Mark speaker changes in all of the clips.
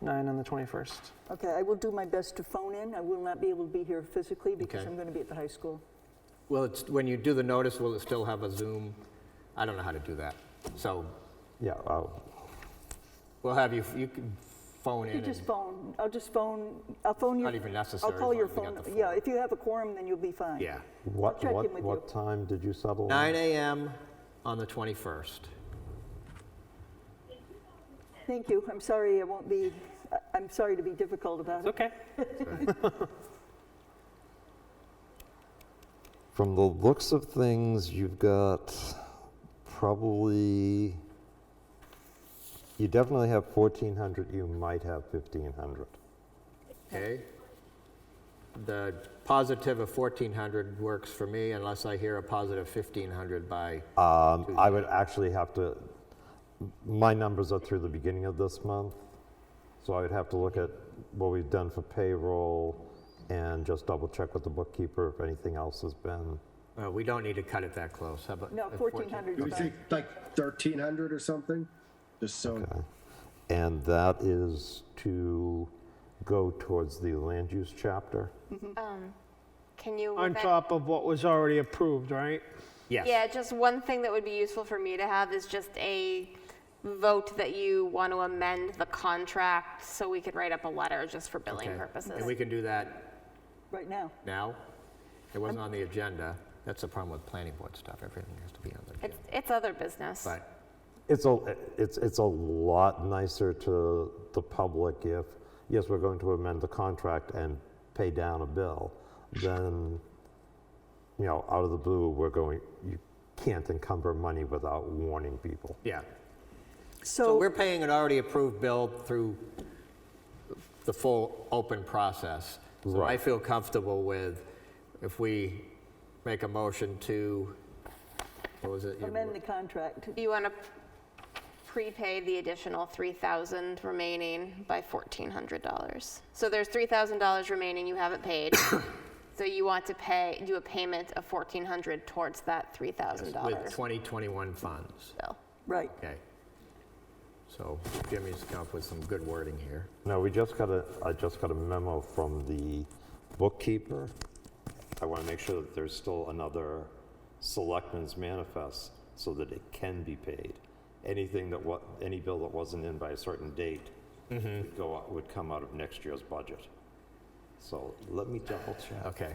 Speaker 1: nine on the 21st.
Speaker 2: Okay, I will do my best to phone in. I will not be able to be here physically because
Speaker 3: Okay.
Speaker 2: I'm going to be at the high school.
Speaker 3: Will it, when you do the notice, will it still have a Zoom? I don't know how to do that. So
Speaker 4: Yeah, uh, I'll-
Speaker 3: we'll have you, you can phone in
Speaker 2: You just
Speaker 3: and
Speaker 2: phone, I'll just phone, I'll phone you.
Speaker 3: not even necessary.
Speaker 2: I'll
Speaker 3: as
Speaker 2: call
Speaker 3: long
Speaker 2: your
Speaker 3: as we
Speaker 2: phone.
Speaker 3: got the
Speaker 2: Yeah, if you have a quorum, then you'll be fine.
Speaker 3: Yeah.
Speaker 4: what,
Speaker 2: check in
Speaker 4: what,
Speaker 2: with
Speaker 4: what
Speaker 2: you.
Speaker 4: time did you settle? on?
Speaker 3: 9 AM on the 21st.
Speaker 2: Thank you. I'm sorry I won't be, I- I'm sorry to be difficult about
Speaker 1: It's
Speaker 2: it.
Speaker 1: okay.
Speaker 4: From the looks of things, you've got probably, you definitely have 1,400, you might have 1,500.
Speaker 3: Okay? The positive of 1,400 works for me unless I hear a positive 1,500 by,
Speaker 4: Um, I would actually have to, my numbers are through the beginning of this month, so I would have to look at what we've done for payroll and just double check with the bookkeeper if anything else has been.
Speaker 3: uh, we don't need to cut it that close. How about?
Speaker 2: No,
Speaker 3: uh,
Speaker 2: 1,400
Speaker 5: Do we
Speaker 2: is
Speaker 5: think
Speaker 2: fine.
Speaker 5: like thirteen hundred or something? Just so,
Speaker 4: And that is to go towards the land use chapter.
Speaker 6: Can you?
Speaker 7: On
Speaker 6: event-
Speaker 7: top of what was already approved, right?
Speaker 3: Yes.
Speaker 6: Yeah, just one thing that would be useful for me to have is just a vote that you want to amend the contract so we could write up a letter just for billing
Speaker 3: Okay.
Speaker 6: purposes.
Speaker 3: And we can do that
Speaker 2: Right now.
Speaker 3: now? It wasn't on the agenda. That's the problem with planning board stuff. Everything has to be on the agenda.
Speaker 6: It's, it's other business.
Speaker 3: But
Speaker 4: It's a, it's, it's a lot nicer to the public if, yes, we're going to amend the contract and pay down a bill, then, you know, out of the blue, we're going, you can't encumber money without warning people.
Speaker 3: Yeah, so we're
Speaker 2: So,
Speaker 3: paying an already approved bill through the full open process. So I
Speaker 4: Right.
Speaker 3: feel comfortable with if we make a motion to, what was it? you-
Speaker 2: amend the contract.
Speaker 6: You want to prepay the additional 3,000 remaining by $1,400. So there's $3,000 remaining you haven't paid. So you want to pay, do a payment of 1,400 towards that
Speaker 3: With
Speaker 6: $3,000
Speaker 3: 2021 funds,
Speaker 6: bill.
Speaker 2: Right.
Speaker 3: okay. So Jimmy's come up with some good wording here.
Speaker 4: No, we just got a, I just got a memo from the bookkeeper. I want to make sure that there's still another selectman's manifest so that it can be paid. Anything that wa, any bill that wasn't in by a certain date would go, out- would come out of next year's budget. So let me double check.
Speaker 3: Okay.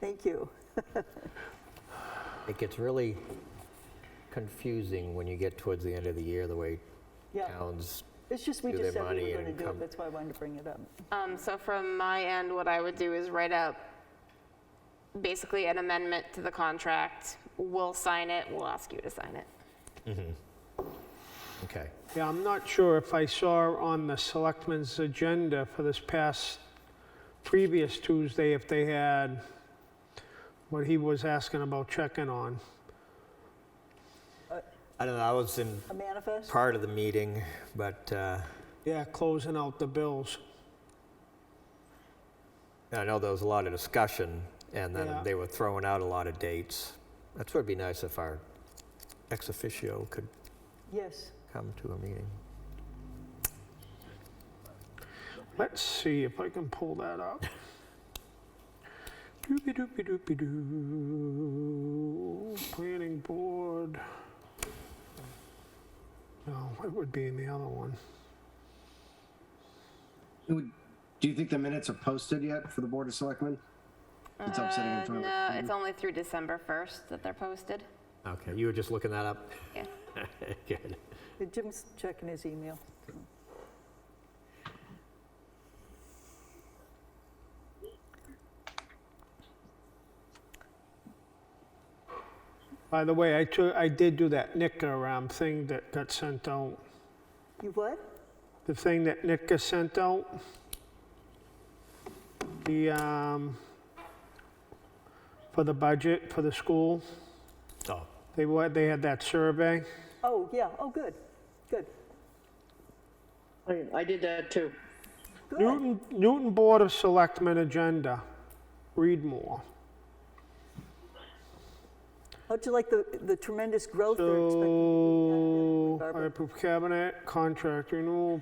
Speaker 2: Thank you.
Speaker 3: It gets really confusing when you get towards the end of the year, the way
Speaker 2: Yeah.
Speaker 3: towns
Speaker 2: It's just, we
Speaker 3: do
Speaker 2: just
Speaker 3: their
Speaker 2: said we
Speaker 3: money
Speaker 2: were going
Speaker 3: and
Speaker 2: to do
Speaker 3: come-
Speaker 2: it. That's why I wanted to bring it up.
Speaker 6: Um, so from my end, what I would do is write up basically an amendment to the contract. We'll sign it, we'll ask you to sign it.
Speaker 3: Okay.
Speaker 7: Yeah, I'm not sure if I saw on the selectmen's agenda for this past, previous Tuesday, if they had what he was asking about checking on.
Speaker 3: I don't know, I was in
Speaker 2: A manifest?
Speaker 3: part of the meeting, but uh,
Speaker 7: Yeah, closing out the bills.
Speaker 3: I know there was a lot of discussion, and then
Speaker 7: Yeah.
Speaker 3: they were throwing out a lot of dates. That's what would be nice if our ex officio could
Speaker 2: Yes.
Speaker 3: come to a meeting.
Speaker 7: Let's see if I can pull that up. Doopy-doopy-doopy-doo. Planning board. No, it would be in the other one.
Speaker 5: do you think the minutes are posted yet for the Board of Selectmen? It's up sitting in front of
Speaker 6: Uh, No,
Speaker 5: it.
Speaker 6: it's only through December 1st that they're posted.
Speaker 3: Okay, you were just looking that up?
Speaker 6: Yeah.
Speaker 3: Good.
Speaker 2: Jim's checking his email.
Speaker 7: By the way, I took, I did do that NICA um, thing that got sent out.
Speaker 2: You what?
Speaker 7: The thing that NICA sent out. The, um, for the budget for the school,
Speaker 3: Oh,
Speaker 7: they wa- they had that survey.
Speaker 2: Oh, yeah. Oh, good. Good.
Speaker 8: I, I did that too.
Speaker 2: Good.
Speaker 7: Newton, Newton Board of Selectmen agenda. Read more.
Speaker 2: How'd you like the the tremendous growth they're expecting?
Speaker 7: So,
Speaker 2: Barbara.
Speaker 7: I approve cabinet, contract renewal,